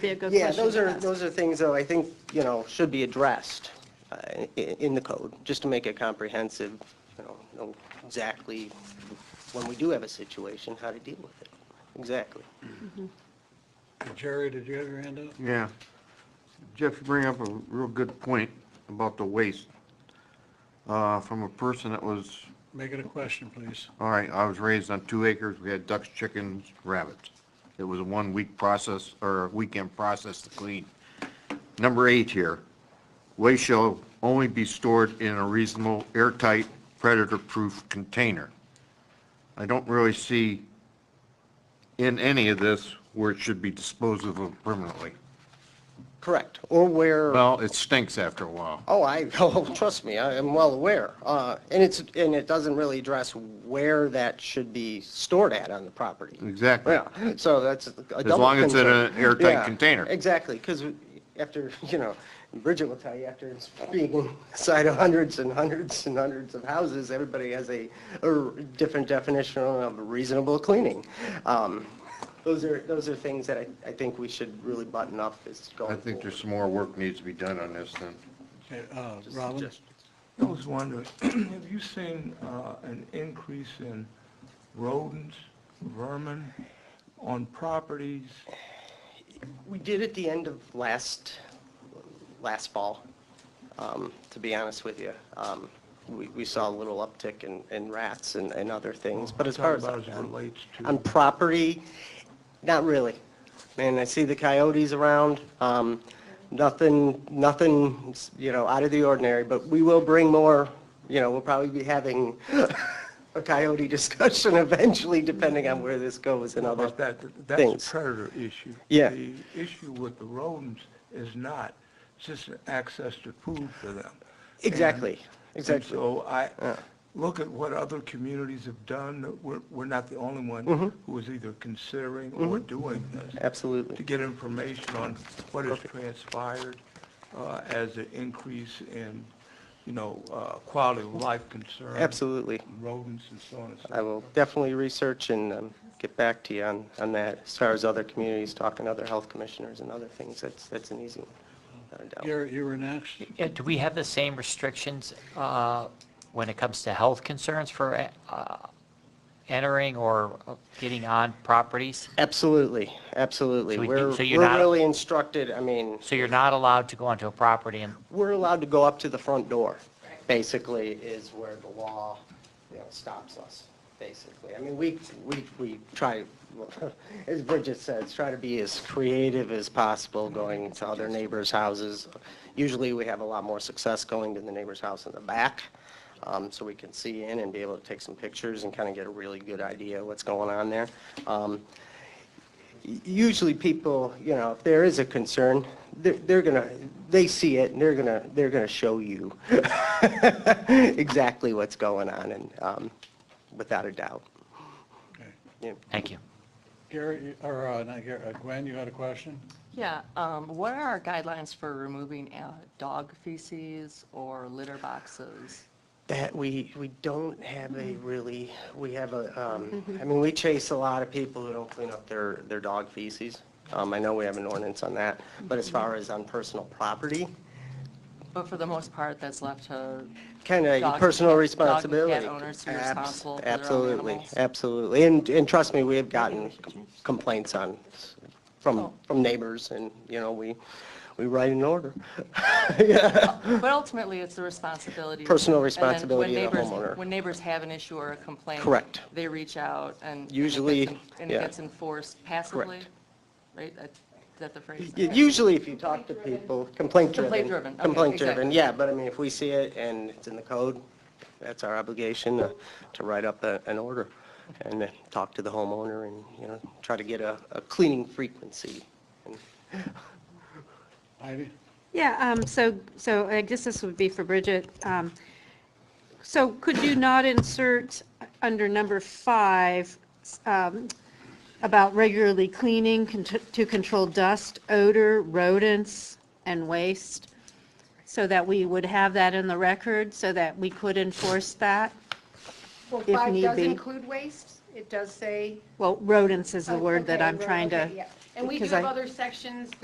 be a good Yeah, question those to are, ask. those are things, though, I think, you know, should be addressed uh, i- in the code, just to make it comprehensive, you know, know exactly when we do have a situation, how to deal with it. Exactly. Jerry, did you have your hand up? Yeah. Jeff, you bring up a real good point about the waste uh, from a person that was, Make it a question, please. all right, I was raised on two acres. We had ducks, chickens, rabbits. It was a one-week process or a weekend process to clean. Number eight here, waste shall only be stored in a reasonable airtight predator-proof container. I don't really see in any of this where it should be disposed of permanently. Correct. Or where, Well, it stinks after a while. oh, I, oh, trust me, I am well aware. Uh, And it's, and it doesn't really address where that should be stored at on the property. Exactly. Yeah, so that's a double concern. long as it's in an airtight Yeah, container. Exactly, because after, you know, Bridget will tell you, after being inside of hundreds and hundreds and hundreds of houses, everybody has a, a different definition of reasonable cleaning. Um, Those are, those are things that I, I think we should really button up as I going think forward. there's some more work needs to be done on this then. Okay, uh, Robin? I was wondering, have you seen uh, an increase in rodents, vermin on properties? We did at the end of last, last fall, um, to be honest with you. Um, We, we saw a little uptick in, in rats and, and other things, but as far as. Talking about as it relates to- On property, not really. And I see the coyotes around, um, nothing, nothing, you know, out of the ordinary, but we will bring more, you know, we'll probably be having a coyote discussion eventually, depending on where this goes and other About that, things. that's a predator issue. Yeah. The issue with the rodents is not, it's just access to food for them. Exactly, And- exactly. And so I, look at what other communities have done, that we're, we're not the only one who is either considering or doing this. Mm-hmm. Absolutely. to get information on what has transpired uh, as an increase in, you know, uh, quality of life concerns. Absolutely. Rodents and so on and so I will definitely research and um, get back to you on, on that, as far as other communities, talking to other health commissioners and other things, that's, that's an easy one, without a doubt. Gary, you were next. Yeah, do we have the same restrictions uh, when it comes to health concerns for uh, entering or getting on properties? Absolutely, absolutely. So we- We're, so you're we're not- really instructed, I mean, So you're not allowed to go onto a property and, we're allowed to go up to the front door, basically, is where the law, you know, stops us, basically. I mean, we, we, we try, as Bridget says, try to be as creative as possible going to other neighbors' houses. Usually, we have a lot more success going to the neighbor's house in the back, um, so we can see in and be able to take some pictures and kind of get a really good idea of what's going on there. Um, usually people, you know, if there is a concern, they're, they're gonna, they see it and they're gonna, they're gonna show you exactly what's going on and, um, without a doubt. Okay. Yeah. thank you. Gary, you- or, uh, not Gary, uh, Gwen, you had a question? Yeah, um, what are our guidelines for removing uh, dog feces or litter boxes? That, we, we don't have a really, we have a, um, I mean, we chase a lot of people who don't clean up their, their dog feces. Um, I know we have an ordinance on that, but as far as on personal property, But for the most part, that's left to, Kind of Dog- personal dog and cat responsibility. owners who are Abs- responsible for their own Absolutely, animals. absolutely. And, and trust me, we have gotten complaints on, from, Oh. from neighbors and, you know, we, we write an order. but ultimately, it's the responsibility. Personal and then when responsibility of the neighbors- homeowner. When neighbors have an issue or a complaint. Correct. They reach out and. and it Usually, gets en- And it yeah. gets enforced passively, right? That- Is that the phrase? Y- Okay. Usually if you talk to people, complaint driven. Complaint-driven, okay, Complaint driven, exactly. yeah, but I mean, if we see it and it's in the code, that's our obligation to- to write up a- an order and then talk to the homeowner and, you know, try to get a, a cleaning frequency. And Heidi? Yeah, um, so, so I guess this would be for Bridget. Um, So could you not insert under number five um, about regularly cleaning con- to control dust, odor, rodents, and waste? So that we would have that in the record, so that we could enforce that? Well, if five need does be. include waste. It does say. Well, rodents is the word that Oh, Okay, I'm we're- trying to. okay, yeah. And we do because I- have other sections